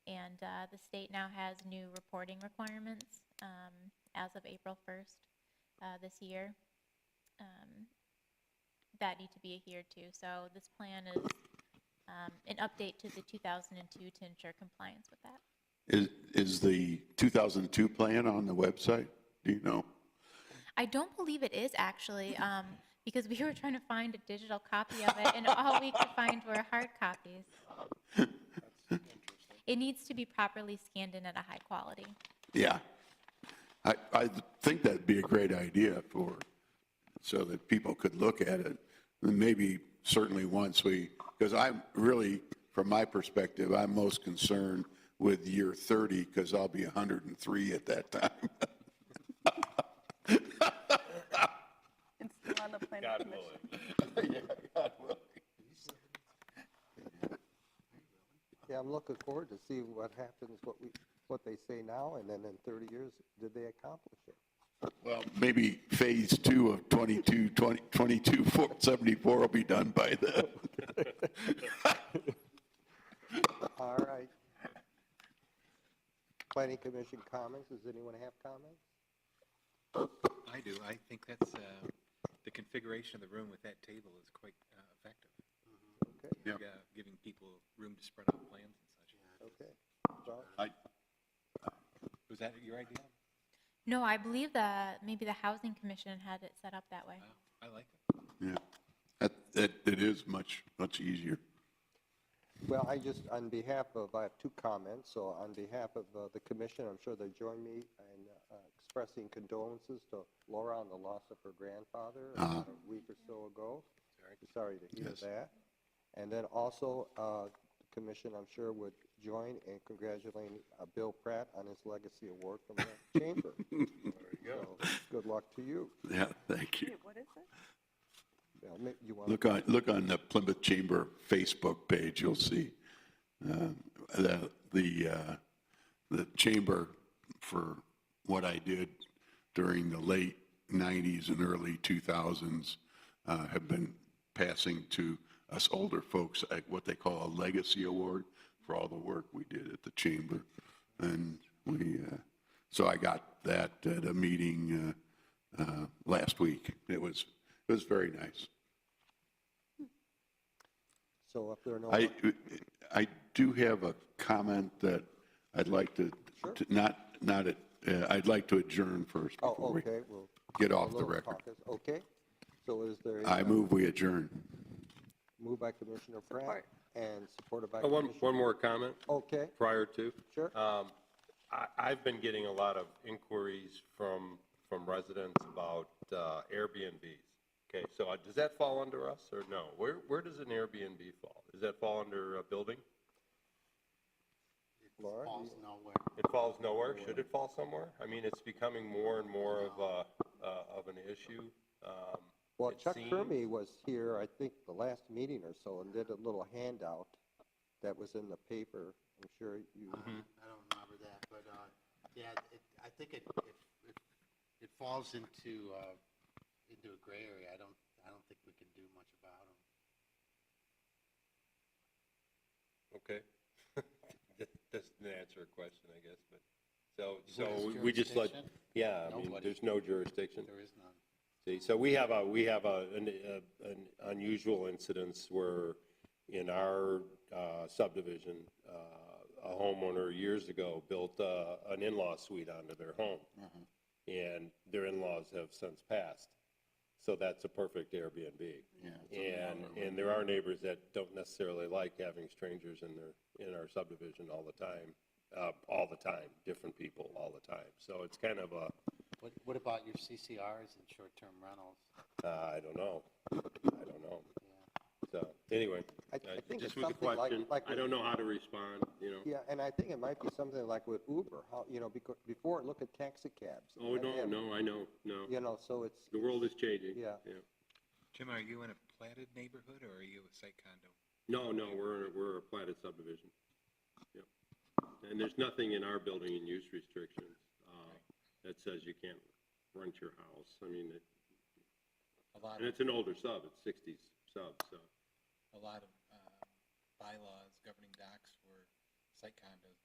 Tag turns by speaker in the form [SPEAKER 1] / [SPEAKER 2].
[SPEAKER 1] uh, the state now has new reporting requirements um, as of April 1st uh, this year um, that need to be adhered to. So this plan is um, an update to the 2002 to ensure compliance with that.
[SPEAKER 2] Is, is the 2002 plan on the website? Do you know?
[SPEAKER 1] I don't believe it is actually, um, because we were trying to find a digital copy of it, and all we could find were hard copies. It needs to be properly scanned in at a high quality.
[SPEAKER 2] Yeah. I, I think that'd be a great idea for, so that people could look at it. And maybe certainly once we, because I'm really, from my perspective, I'm most concerned with year 30 because I'll be 103 at that time.
[SPEAKER 3] It's still on the planning commission.
[SPEAKER 4] Yeah, I'm looking forward to see what happens, what we, what they say now, and then in 30 years, did they accomplish it?
[SPEAKER 2] Well, maybe phase two of 22, 20, 22, 74 will be done by then.
[SPEAKER 4] All right. Planning Commission comments, does anyone have comments?
[SPEAKER 5] I do. I think that's, uh, the configuration of the room with that table is quite uh, effective.
[SPEAKER 4] Okay,
[SPEAKER 2] Yeah.
[SPEAKER 5] Uh, Giving people room to spread out plans and such.
[SPEAKER 4] okay. Well,
[SPEAKER 5] Was that your idea?
[SPEAKER 1] No, I believe that maybe the Housing Commission had it set up that way.
[SPEAKER 5] Wow, I like it.
[SPEAKER 2] Yeah, that, that, it is much, much easier.
[SPEAKER 4] Well, I just, on behalf of, I have two comments, so on behalf of uh, the commission, I'm sure they join me in uh, expressing condolences to Laura on the loss of her grandfather about a week or so ago. Sorry to hear
[SPEAKER 2] Uh-huh. Yes.
[SPEAKER 4] that. And then also, uh, the commission, I'm sure, would join in congratulating uh, Bill Pratt on his legacy award from the chamber. There you go. Good luck to you.
[SPEAKER 2] Yeah, thank you.
[SPEAKER 3] Wait, what is it?
[SPEAKER 4] Now, ma- You want,
[SPEAKER 2] Look on, look on the Plymouth Chamber Facebook page, you'll see um, the, the, uh, the chamber for what I did during the late 90s and early 2000s uh, have been passing to us older folks uh, what they call a legacy award for all the work we did at the chamber. And we, uh, so I got that at a meeting uh, uh, last week. It was, it was very nice.
[SPEAKER 4] so if there are no,
[SPEAKER 2] I, I do have a comment that I'd like to, to- not, not, at- uh, I'd like to adjourn first
[SPEAKER 4] oh,
[SPEAKER 2] before we
[SPEAKER 4] okay, we'll.
[SPEAKER 2] get
[SPEAKER 4] a
[SPEAKER 2] off the
[SPEAKER 4] little
[SPEAKER 2] record.
[SPEAKER 4] caucus. Okay, so is there? a,
[SPEAKER 2] I
[SPEAKER 4] uh,
[SPEAKER 2] move we adjourn.
[SPEAKER 4] Moved by Commissioner Pratt
[SPEAKER 3] Support.
[SPEAKER 4] and supported by
[SPEAKER 6] Uh, One,
[SPEAKER 4] Commissioner.
[SPEAKER 6] one more comment
[SPEAKER 4] Okay,
[SPEAKER 6] prior to.
[SPEAKER 4] Sure.
[SPEAKER 6] Um, I, I've been getting a lot of inquiries from, from residents about uh, Airbnbs. Okay, so uh, does that fall under us or no? Where, where does an Airbnb fall? Does that fall under a building?
[SPEAKER 4] Laura,
[SPEAKER 6] It falls nowhere? Should it fall somewhere? I mean, it's becoming more and more of a, uh, of an issue. Um,
[SPEAKER 4] well,
[SPEAKER 6] it
[SPEAKER 4] Chuck
[SPEAKER 6] seems-
[SPEAKER 4] Kermy was here, I think, the last meeting or so, and did a little handout that was in the paper. I'm sure you,
[SPEAKER 6] Uh, Mm-hmm.
[SPEAKER 7] I don't remember that, but, uh, yeah, it, I think it, it, it- it falls into, uh, into a gray area. I don't, I don't think we can do much about them.
[SPEAKER 6] Okay. That doesn't answer a question, I guess, but, so, so we just let,
[SPEAKER 7] jurisdiction?
[SPEAKER 6] yeah, I mean,
[SPEAKER 7] Nobody.
[SPEAKER 6] there's no jurisdiction.
[SPEAKER 7] There is none.
[SPEAKER 6] See, so we have a, we have a, an, a- an unusual incidence where in our uh, subdivision, uh, a homeowner years ago built uh, an in-law suite onto their home. And their in-laws have since passed. So that's a perfect Airbnb. And, and there are neighbors that don't necessarily like having strangers in their, in our subdivision all the time, uh, all the time, different people all the time. So it's kind of a,
[SPEAKER 7] What, what about your CCRs and short-term rentals?
[SPEAKER 6] uh, I don't know. I don't know. So, anyway,
[SPEAKER 4] I- I
[SPEAKER 6] uh,
[SPEAKER 4] think it's
[SPEAKER 6] just was a
[SPEAKER 4] something like-
[SPEAKER 6] question.
[SPEAKER 4] like
[SPEAKER 6] I
[SPEAKER 4] with-
[SPEAKER 6] don't know how to respond, you know.
[SPEAKER 4] yeah, and I think it might be something like with Uber, how, you know, becau- before, look at taxi cabs.
[SPEAKER 6] Oh,
[SPEAKER 4] and-
[SPEAKER 6] no,
[SPEAKER 4] and,
[SPEAKER 6] no, I know, no.
[SPEAKER 4] You know, so it's,
[SPEAKER 6] The world is changing.
[SPEAKER 4] Yeah.
[SPEAKER 5] Jim, are you in a platted neighborhood or are you a site condo?
[SPEAKER 6] No, no, we're, in a- we're a platted subdivision. Yep. And there's nothing in our building and use restrictions, uh, that says you can't rent your house. I mean, it-
[SPEAKER 5] A lot
[SPEAKER 6] and
[SPEAKER 5] of,
[SPEAKER 6] it's an older sub, it's sixties sub, so.
[SPEAKER 5] uh, a lot of um, bylaws governing docs were site condos